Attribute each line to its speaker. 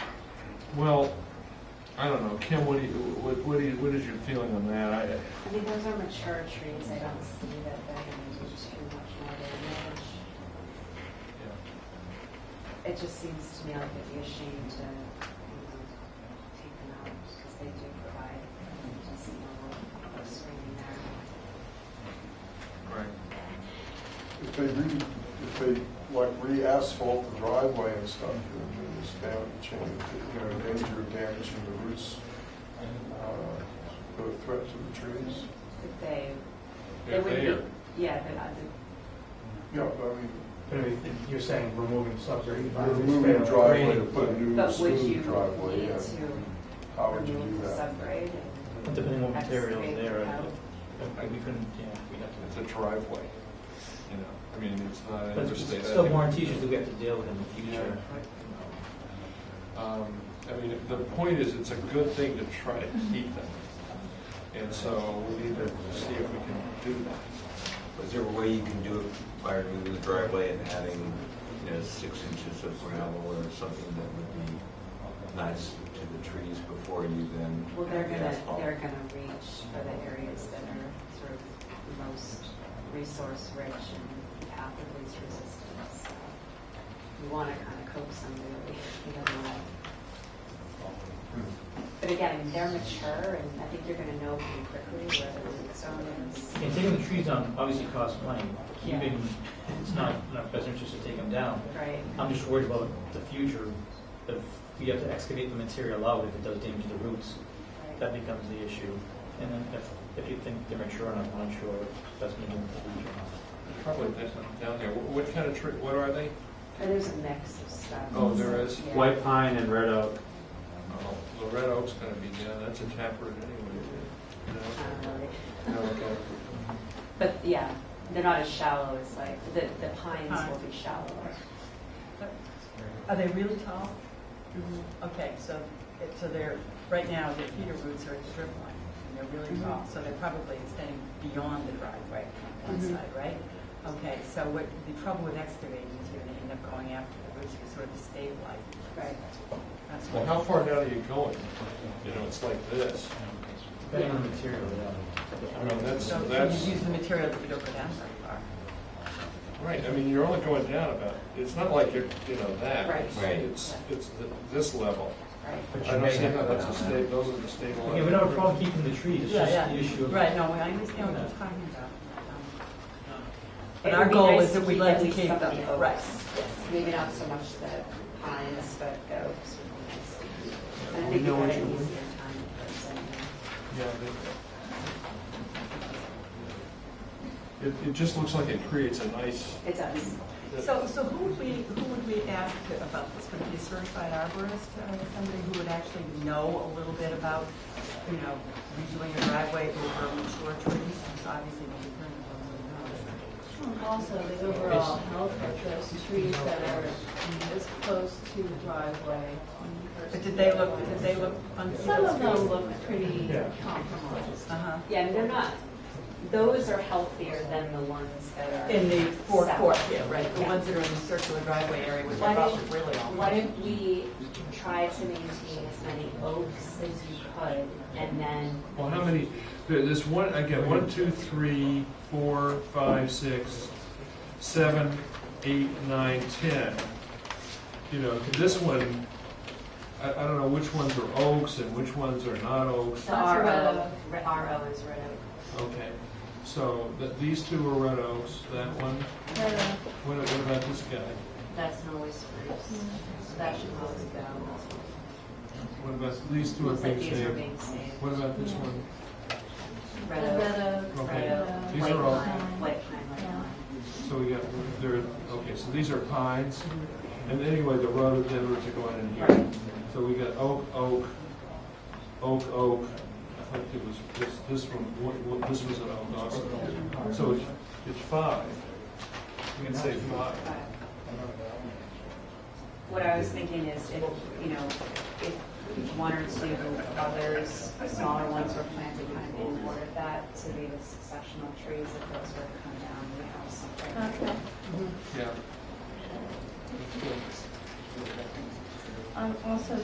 Speaker 1: Well, I don't know, Kim, what do you, what, what do you, what is your feeling on that? I,
Speaker 2: I mean, those are mature trees, I don't see that they're gonna do too much more damage.
Speaker 1: yeah.
Speaker 2: It just seems to me like it'd be a shame to, you know, take them out, because they do provide a decent level of screening there.
Speaker 1: right.
Speaker 3: If they re, if they like re-asphalt the driveway and stuff, you know, this damage, you know, danger of damaging the roots, uh, the threat to the trees.
Speaker 2: But they, they
Speaker 1: If
Speaker 2: would
Speaker 1: they are-
Speaker 2: be, yeah, but uh, I did-
Speaker 3: Yeah, but I mean,
Speaker 4: But if You're saying removing subs or even.
Speaker 3: you're removing the driveway to put a new
Speaker 2: but would you
Speaker 3: smooth
Speaker 2: need
Speaker 3: driveway, yeah.
Speaker 2: to
Speaker 3: How would you do
Speaker 2: remove the
Speaker 3: that?
Speaker 2: subgrade? and
Speaker 4: Depending on materials
Speaker 2: excavate
Speaker 4: there,
Speaker 2: it
Speaker 4: I-
Speaker 2: out?
Speaker 4: I- we couldn't, yeah, we have
Speaker 1: It's
Speaker 4: to.
Speaker 1: a driveway, you know, I mean, it's not an
Speaker 4: But it's
Speaker 1: interstate.
Speaker 4: still warranty issues that we have to deal with in the future.
Speaker 1: Um, I mean, the point is, it's a good thing to try to keep them. And so we need to see if we can do that.
Speaker 5: Is there a way you can do it by removing the driveway and having, you know, six inches of gravel or something that would be nice to the trees before you then?
Speaker 2: Well, they're
Speaker 5: add the
Speaker 2: gonna,
Speaker 5: asphalt?
Speaker 2: they're gonna reach for the areas that are sort of the most resource rich and path of least resistance. So You wanna kind of coax them really, you don't want But again, they're mature and I think you're gonna know pretty quickly where the root zone is.
Speaker 4: And taking the trees down obviously costs money.
Speaker 2: Yeah.
Speaker 4: Keeping, it's not in our best interest to take them down.
Speaker 2: Right,
Speaker 1: Um,
Speaker 4: I'm just worried about the future, if we have to excavate the material out, if it does damage the roots,
Speaker 2: right.
Speaker 4: that becomes the issue. And then if, if you think they're mature enough, I'm not sure that's maybe in the future.
Speaker 1: Probably there's something down there. Wh- What kind of tree, what are they?
Speaker 2: But there's a mix of stuff.
Speaker 1: Oh, there is?
Speaker 2: Yeah.
Speaker 6: White pine and red oak.
Speaker 1: Oh, The red oak's gonna be down, that's a taproot anyway.
Speaker 2: Not really.
Speaker 1: you know?
Speaker 2: Uh,
Speaker 1: No, okay.
Speaker 2: But yeah, they're not as shallow as like, the, the pines will be shallower.
Speaker 7: Are they really tall? Okay, so, it- so they're, right now, their feeder roots are at the drip line, and they're really
Speaker 4: Mm-hmm.
Speaker 7: tall, so they're probably extending beyond the driveway on one
Speaker 4: Mm-hmm.
Speaker 2: Mhm.
Speaker 7: side, right? Okay, so what, the trouble with excavating is you're gonna end up going after the roots, you sort of stabilize.
Speaker 2: Right.
Speaker 7: That's
Speaker 1: Well,
Speaker 7: what,
Speaker 1: how far down are you going? You know, it's like this.
Speaker 4: Depending on the material, yeah.
Speaker 1: I mean, that's,
Speaker 7: so
Speaker 1: that's,
Speaker 7: you use the material that you don't go down very far.
Speaker 1: right, I mean, you're only going down about, it's not like you're, you know, that.
Speaker 2: Right.
Speaker 1: It's-
Speaker 5: Right.
Speaker 1: It's, it's th- this level.
Speaker 2: Right.
Speaker 4: But
Speaker 1: I
Speaker 4: you
Speaker 1: don't
Speaker 4: may
Speaker 1: see
Speaker 4: have
Speaker 1: how
Speaker 4: to
Speaker 1: that's
Speaker 4: go
Speaker 1: a
Speaker 4: down.
Speaker 1: sta, those are the stable.
Speaker 4: Yeah, we don't have a problem keeping the trees, it's
Speaker 7: Yeah,
Speaker 4: just
Speaker 7: yeah.
Speaker 4: the issue of.
Speaker 7: Right, no, I understand what you're talking about. Um, But
Speaker 2: It
Speaker 7: our
Speaker 2: would be
Speaker 7: goal
Speaker 2: nice
Speaker 7: is that
Speaker 2: to
Speaker 7: we'd like
Speaker 2: at
Speaker 7: to
Speaker 2: least
Speaker 7: keep
Speaker 2: some
Speaker 7: them,
Speaker 2: of the
Speaker 7: right.
Speaker 2: oaks. Maybe not so much the pines, but the oaks would be nice. And I
Speaker 6: We
Speaker 2: think you
Speaker 6: know
Speaker 2: got
Speaker 6: what
Speaker 2: an
Speaker 6: you want.
Speaker 2: easier time for some.
Speaker 1: Yeah. they- It, it just looks like it creates a nice.
Speaker 2: It does.
Speaker 7: So, so who would we, who would we ask about this? Would it be a certified arborist, uh, somebody who would actually know a little bit about, you know, redoing a driveway over mature trees? Because obviously, we don't really
Speaker 8: Also, the overall health of those trees that are as close to driveway.
Speaker 7: know. But did they look, did they look?
Speaker 8: Some of them look pretty compromised.
Speaker 7: Uh-huh.
Speaker 2: Yeah, and they're not, those are healthier than the ones that are.
Speaker 7: In the forecourt here, right? The
Speaker 2: Yeah.
Speaker 7: ones that are in the circular driveway area, which
Speaker 2: Why
Speaker 7: are
Speaker 2: don't-
Speaker 7: probably really all.
Speaker 2: Why don't we try to maintain as many oaks as you could and then,
Speaker 1: Well, how many, there- there's one, again, one, two, three, four, five, six, seven, eight, nine, ten. You know, this one, I, I don't know which ones are oaks and which ones are not oaks.
Speaker 2: the
Speaker 8: That's a red
Speaker 2: RO,
Speaker 8: oak.
Speaker 2: re- RO is red oak.
Speaker 1: Okay, so th these two are red oaks, that one,
Speaker 8: Uh,
Speaker 1: what what about this guy?
Speaker 2: That's Norway spruce. So that should probably go.
Speaker 1: What about, these two are
Speaker 2: Looks like
Speaker 1: being
Speaker 2: these are
Speaker 1: saved.
Speaker 2: being saved.
Speaker 1: What about this one?
Speaker 8: The
Speaker 2: Red oak,
Speaker 8: red oak,
Speaker 1: Okay.
Speaker 2: red oak,
Speaker 1: These
Speaker 2: white
Speaker 1: are all-
Speaker 2: pine, white pine, white pine.
Speaker 1: So we got, there, okay, so these are pines, and anyway, the rhododendrons are going in here. So we got oak, oak, oak, oak, I think it was, this, this one, what- what- this was an oak also. So it's, it's five. We can say five.
Speaker 2: What I was thinking is if, you know, if one or two others, smaller ones were planted kind of in order of that to be the successional trees, if those were to come down, we have something.
Speaker 8: Okay.
Speaker 1: Yeah.
Speaker 8: Um, also,